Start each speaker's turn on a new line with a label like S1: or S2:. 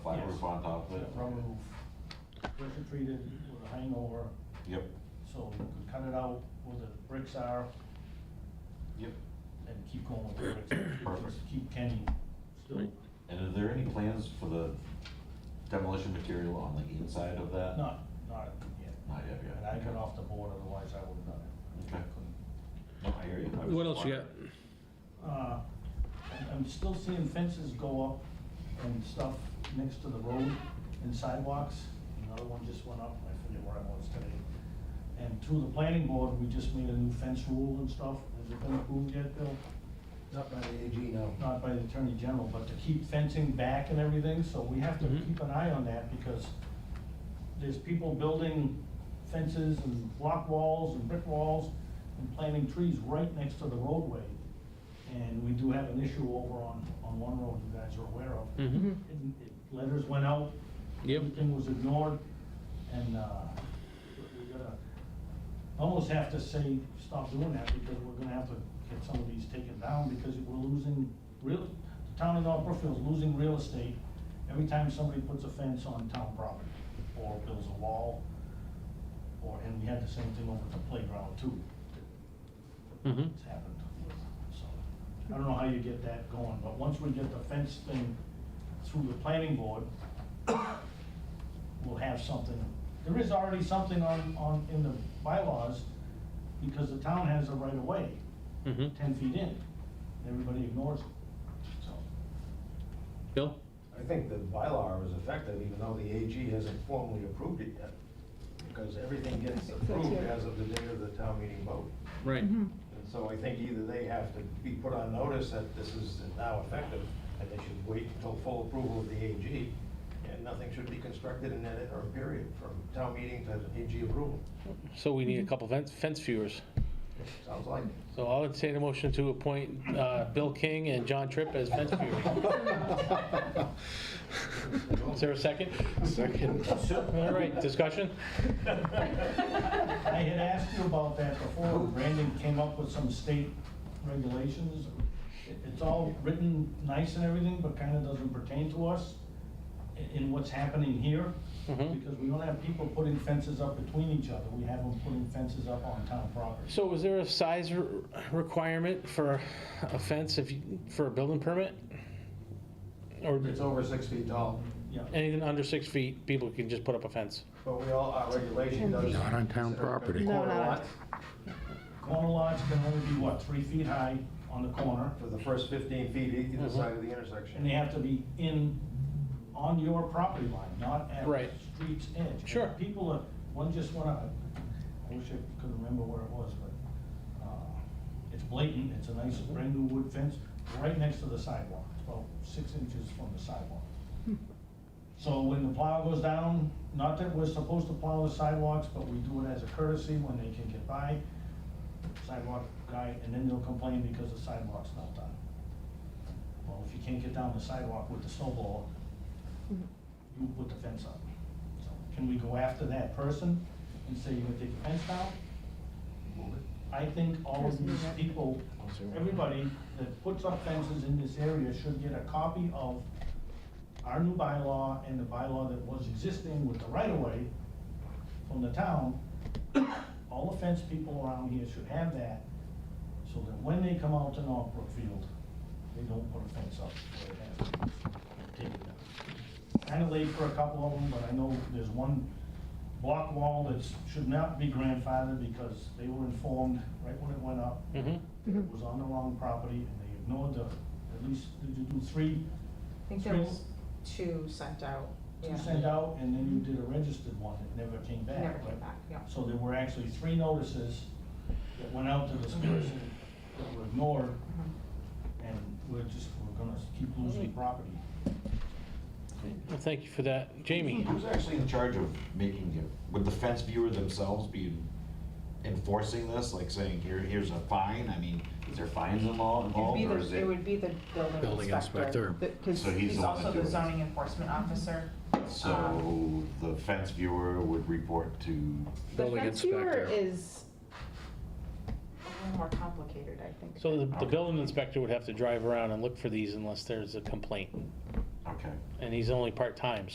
S1: roof on top of it.
S2: rubber roof, pressure treated with a hangover,
S1: Yep,
S2: so you could cut it out where the bricks are
S1: yep.
S2: and keep going with the bricks.
S1: Perfect.
S2: Just Keep Kenny still,
S3: Right.
S1: And are there any plans for the demolition material on the inside of that?
S2: not, not yet.
S1: Not yet, yeah.
S2: And I got off the board, otherwise I would've done it.
S1: Okay.
S2: Couldn't.
S1: No, I hear you. I was
S3: What
S1: just
S3: else you got?
S1: wondering.
S2: Uh, I'm- I'm still seeing fences go up and stuff next to the road and sidewalks. Another one just went up, I forget where I was today. And through the planning board, we just made a new fence rule and stuff. Has it been approved yet, Bill?
S4: Not by the AG, no.
S2: Not by the attorney general, but to keep fencing back and everything, so we have to
S3: Mhm.
S2: keep an eye on that because there's people building fences and block walls and brick walls and planting trees right next to the roadway. And we do have an issue over on, on one road you guys are aware of.
S3: Mhm.
S2: And it- Letters went out.
S3: Yep.
S2: Everything was ignored, and, uh, we gotta almost have to say, stop doing that, because we're gonna have to get some of these taken down, because we're losing real, the town of North Brookfield's losing real estate every time somebody puts a fence on town property, or builds a wall, or, and we had the same thing over at the playground too.
S3: Mhm.
S2: It's happened, so, I don't know how you get that going, but once we get the fence thing through the planning board, we'll have something. There is already something on, on, in the bylaws, because the town has a right of way,
S3: Mhm.
S2: ten feet in, everybody ignores it, so.
S3: Bill?
S4: I think the bylaw is effective, even though the AG hasn't formally approved it yet, because everything gets approved as of the day of the town meeting vote.
S3: Right.
S4: And so I think either they have to be put on notice that this is now effective, and they should wait until full approval of the AG, and nothing should be constructed in that interim period from town meeting to AG approval.
S3: So we need a couple fence, fence viewers.
S4: Sounds like it.
S3: So I'll entertain a motion to appoint, uh, Bill King and John Tripp as fence viewers. Is there a second?
S5: Second.
S3: All right, discussion?
S2: I had asked you about that before, Brandon came up with some state regulations. It- It's all written nice and everything, but kind of doesn't pertain to us i- in what's happening here.
S3: Mhm.
S2: Because we don't have people putting fences up between each other, we have them putting fences up on town property.
S3: So is there a size re- requirement for a fence if, you- for a building permit? Or
S4: It's over six feet tall,
S2: Yeah,
S3: anything under six feet, people can just put up a fence?
S4: but we all, our regulation does.
S5: Not on town property.
S6: No,
S4: Corner
S6: not on-
S4: lot
S2: corner lots can only be, what, three feet high on the corner?
S4: For the first 15 feet e, either
S6: Mm-hmm.
S4: side of the intersection.
S2: And they have to be in, on your property line, not at the
S3: Right.
S2: street's edge.
S3: Sure.
S2: People are, one just went out, I wish I could remember where it was, but, uh, it's blatant, it's a nice
S3: Mm-hmm.
S2: brand new wood fence, right next to the sidewalk, It's about six inches from the sidewalk.
S3: Hmm.
S2: So when the plow goes down, not that we're supposed to plow the sidewalks, but we do it as a courtesy when they can get by, sidewalk guy, and then they'll complain because the sidewalk's not done. Well, if you can't get down the sidewalk with the snowball, you put the fence up. So Can we go after that person and say, you're gonna take the fence down? I think all of these people, everybody that puts up fences in this area should get a copy of our new bylaw and the bylaw that was existing with the right-of-way from the town. All the fence people around here should have that, so that when they come out to North Brookfield, they don't put a fence up where it has to be. Take it down. Kinda late for a couple of them, but I know there's one block wall that should not be grandfathered because they were informed right when it went up
S3: Mm-hmm.
S2: that it was on the wrong property and they ignored the, at least, did you do three
S6: I think there
S2: Three.
S6: was two sent out.
S2: two
S6: yeah.
S2: sent out, and then you did a registered one that never came back.
S6: Never
S2: right?
S6: came back, yeah.
S2: So there were actually three notices that went out to this person that were ignored,
S6: Mm-hmm.
S2: and we're just, we're gonna keep losing property.
S3: Well, thank you for that. Jamie?
S1: Who's actually in charge of making it? Would the fence viewer themselves be enforcing this, like saying, here, here's a fine? I mean, is there fines involved,
S6: It'd
S1: involved,
S6: be
S1: or is
S6: the,
S1: it?
S6: it would be the building
S5: Building
S6: inspector.
S5: inspector.
S6: Because
S1: So he's
S6: he's
S1: the one
S6: also
S1: that
S6: the
S1: does it.
S6: zoning enforcement officer. Um,
S1: So the fence viewer would report to,
S6: The
S5: Building
S6: fence viewer
S5: inspector.
S6: is a little more complicated, I think.
S3: So the, the
S1: Okay.
S3: building inspector would have to drive around and look for these unless there's a complaint,
S1: okay.
S3: and he's only part-time,